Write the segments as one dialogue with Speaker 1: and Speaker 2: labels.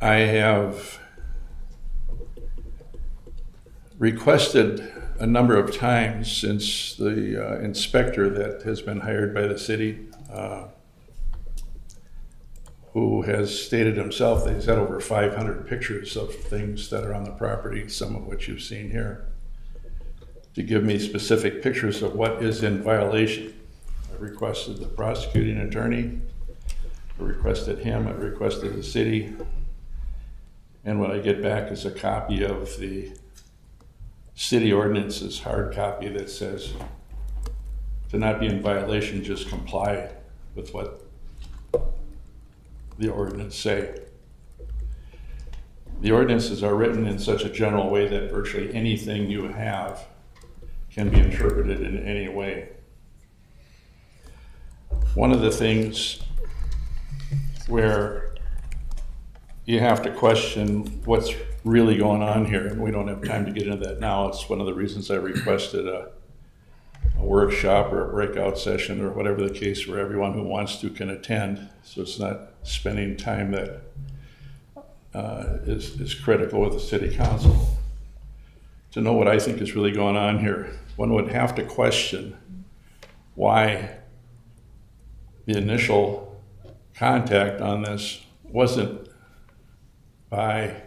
Speaker 1: I have requested a number of times since the uh, inspector that has been hired by the city, uh, who has stated himself that he's had over 500 pictures of things that are on the property, some of which you've seen here, to give me specific pictures of what is in violation. I requested the prosecuting attorney, I requested him, I requested the city. And what I get back is a copy of the city ordinance's hard copy that says to not be in violation, just comply with what the ordinance say. The ordinances are written in such a general way that virtually anything you have can be interpreted in any way. One of the things where you have to question what's really going on here, and we don't have time to get into that now. It's one of the reasons I requested a, a workshop or a breakout session or whatever the case where everyone who wants to can attend, so it's not spending time that uh, is, is critical with the city council. To know what I think is really going on here, one would have to question why the initial contact on this wasn't by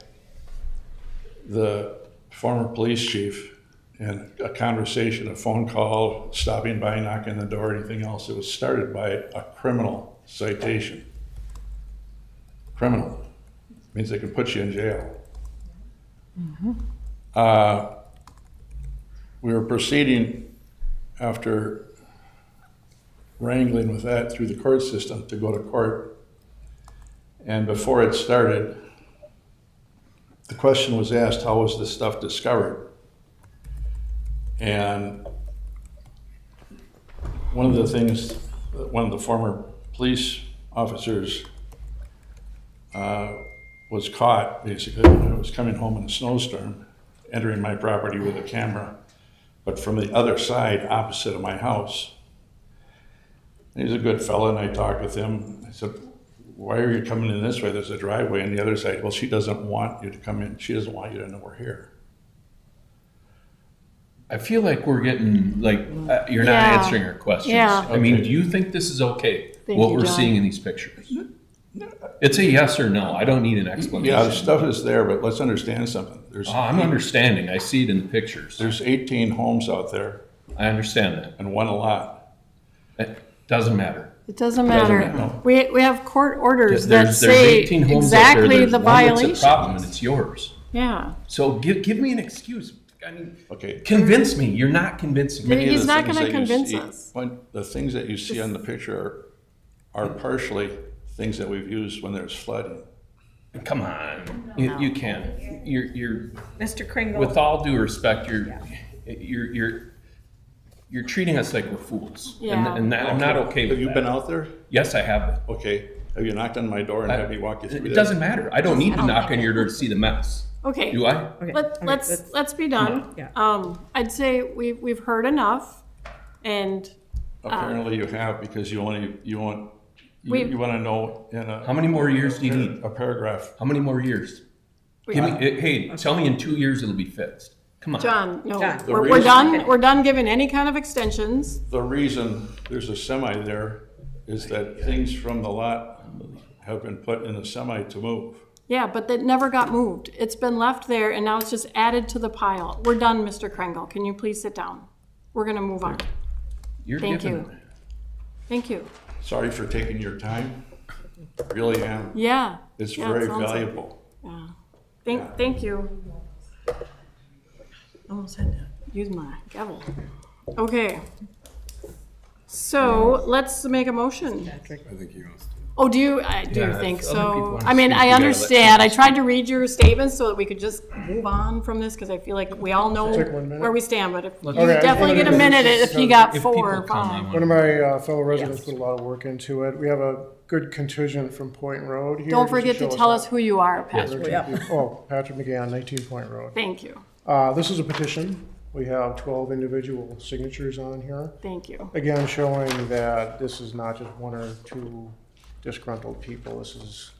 Speaker 1: the former police chief and a conversation, a phone call, stopping by, knocking on the door, anything else. It was started by a criminal citation. Criminal means they can put you in jail. Uh, we were proceeding after wrangling with that through the court system to go to court. And before it started, the question was asked, how was this stuff discovered? And one of the things that one of the former police officers uh, was caught, basically, when I was coming home in a snowstorm, entering my property with a camera, but from the other side, opposite of my house. He's a good fellow, and I talked with him. I said, why are you coming in this way? There's a driveway on the other side. Well, she doesn't want you to come in. She doesn't want you to know we're here.
Speaker 2: I feel like we're getting like uh, you're not
Speaker 3: Yeah.
Speaker 2: answering our questions.
Speaker 3: Yeah.
Speaker 2: I mean,
Speaker 1: Okay.
Speaker 2: do you think this is okay?
Speaker 3: Thank
Speaker 2: what
Speaker 3: you,
Speaker 2: we're
Speaker 3: John.
Speaker 2: seeing in these pictures. It's a yes or no. I don't need an explanation.
Speaker 1: Yeah, the stuff is there, but let's understand something. There's
Speaker 2: Ah, I'm understanding. I see it in the pictures.
Speaker 1: there's 18 homes out there
Speaker 2: I understand
Speaker 1: and one lot.
Speaker 2: that. It doesn't matter.
Speaker 3: It
Speaker 2: Doesn't
Speaker 3: doesn't matter.
Speaker 2: matter.
Speaker 3: We, we have court orders that
Speaker 2: There's, there's
Speaker 3: say
Speaker 2: 18 homes out there.
Speaker 3: exactly
Speaker 2: There's
Speaker 3: the
Speaker 2: one that's a
Speaker 3: violation.
Speaker 2: problem, and it's yours.
Speaker 3: Yeah.
Speaker 2: So give give me an excuse. I mean,
Speaker 1: Okay.
Speaker 2: convince me. You're not convincing me.
Speaker 3: Maybe
Speaker 1: Many of
Speaker 3: he's
Speaker 1: the
Speaker 3: not
Speaker 1: things
Speaker 3: gonna
Speaker 1: that you
Speaker 3: convince
Speaker 1: see-
Speaker 3: us.
Speaker 1: when- the things that you see on the picture are,
Speaker 3: Mm-hmm.
Speaker 1: are partially things that we've used when there's flooding.
Speaker 2: Come on. You, you can. You're you're
Speaker 4: Mr. Kringle.
Speaker 2: with all due respect, you're, you're, you're, you're treating us like we're fools.
Speaker 3: Yeah.
Speaker 2: And, and that, I'm not okay
Speaker 1: Have
Speaker 2: with
Speaker 1: you been
Speaker 2: that.
Speaker 1: out there?
Speaker 2: Yes, I have.
Speaker 1: Okay. Have you knocked on my door and
Speaker 2: I-
Speaker 1: had me walk you through?
Speaker 2: It
Speaker 1: that?
Speaker 2: doesn't matter. I don't need to knock on your door to see the mess.
Speaker 3: Okay.
Speaker 2: Do I?
Speaker 4: Okay,
Speaker 3: Let,
Speaker 4: okay,
Speaker 3: let's, let's be done.
Speaker 4: Yeah.
Speaker 3: Um, I'd say we, we've heard enough and
Speaker 2: Uh.
Speaker 1: Apparently you have because you only, you want, you,
Speaker 3: We've-
Speaker 1: you want to know in a.
Speaker 2: How many more years do you
Speaker 1: in
Speaker 2: need?
Speaker 1: A paragraph.
Speaker 2: How many more years?
Speaker 3: we-
Speaker 2: Give me, eh, hey, tell me in two years it'll be fixed. Come on.
Speaker 3: John, no,
Speaker 4: John. The
Speaker 3: we're, we're
Speaker 1: reason-
Speaker 3: done, we're done giving any kind of extensions.
Speaker 1: The reason there's a semi there is that things from the lot have been put in the semi to move.
Speaker 3: Yeah, but that never got moved. It's been left there and now it's just added to the pile. We're done, Mr. Kringle. Can you please sit down? We're gonna move on.
Speaker 2: You're
Speaker 3: thank
Speaker 2: giving-
Speaker 3: you. Thank you.
Speaker 1: Sorry for taking your time. Really am.
Speaker 3: Yeah.
Speaker 1: It's
Speaker 3: Yeah, it
Speaker 1: very
Speaker 3: sounds like-
Speaker 1: valuable.
Speaker 3: Yeah. Thank, thank you. Almost had to use my gavel. Okay. So let's make a motion.
Speaker 5: I think he wants to.
Speaker 3: Oh, do you, I do
Speaker 2: Yeah, if
Speaker 3: think
Speaker 2: other people
Speaker 3: so.
Speaker 2: wanna
Speaker 3: I mean,
Speaker 2: speak,
Speaker 3: I
Speaker 2: we gotta let
Speaker 3: understand. I tried to read your statements so that we could just move on from this because I feel like we all know
Speaker 5: Take one minute.
Speaker 3: where we stand, but if you
Speaker 2: Okay,
Speaker 5: I-
Speaker 3: definitely get a
Speaker 5: I'm gonna-
Speaker 3: minute if you got
Speaker 2: If
Speaker 3: four
Speaker 2: people
Speaker 3: or
Speaker 2: come, I
Speaker 3: five.
Speaker 2: want.
Speaker 5: One of my uh, fellow residents put a lot of work into it. We have a good contingent from Point Road here.
Speaker 3: Don't
Speaker 5: just
Speaker 3: forget to
Speaker 5: show
Speaker 3: tell
Speaker 5: how-
Speaker 3: us who you are,
Speaker 2: Yes.
Speaker 3: Pat.
Speaker 5: There's
Speaker 4: Yeah.
Speaker 5: two people- Oh, Patrick McGann, 19 Point Road.
Speaker 3: Thank you,
Speaker 5: Uh, This is a petition. We have 12 individual signatures on here.
Speaker 3: thank you.
Speaker 5: Again, showing that this is not just one or two disgruntled people. This is